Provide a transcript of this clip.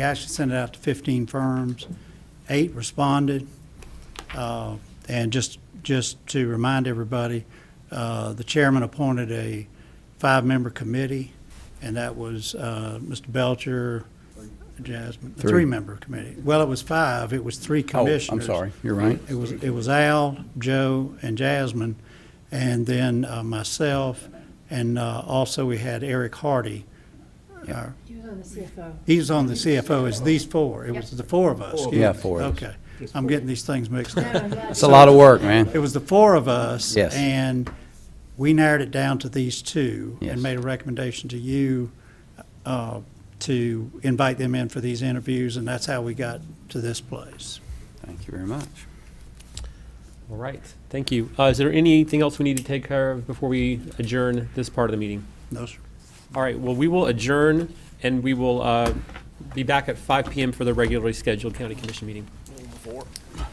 We actually sent it out to 15 firms. Eight responded. Uh, And just, just to remind everybody, uh, the chairman appointed a five-member committee, and that was uh, Mr. Belcher, Jasmine, a Three. three-member committee. Well, it was five, it was three Oh, commissioners. I'm sorry, you're right. It was, it was Al, Joe, and Jasmine, and then uh, myself, and uh, also we had Eric Hardy. our- He was on the CFO. He's on the CFO, it's these four, it was the four of us. excuse Yeah, me. four of us. Okay, I'm getting these things mixed No, I'm up. glad It's you- a lot of work, man. It was the four of us. Yes. And we narrowed it down to these two. Yes. And made a recommendation to you uh, to invite them in for these interviews, and that's how we got to this place. Thank you very much. All right, thank you. Uh, Is there anything else we need to take care of before we adjourn this part of the meeting? No, sir. All right, well, we will adjourn, and we will uh, be back at 5 PM for the regularly scheduled county commission meeting.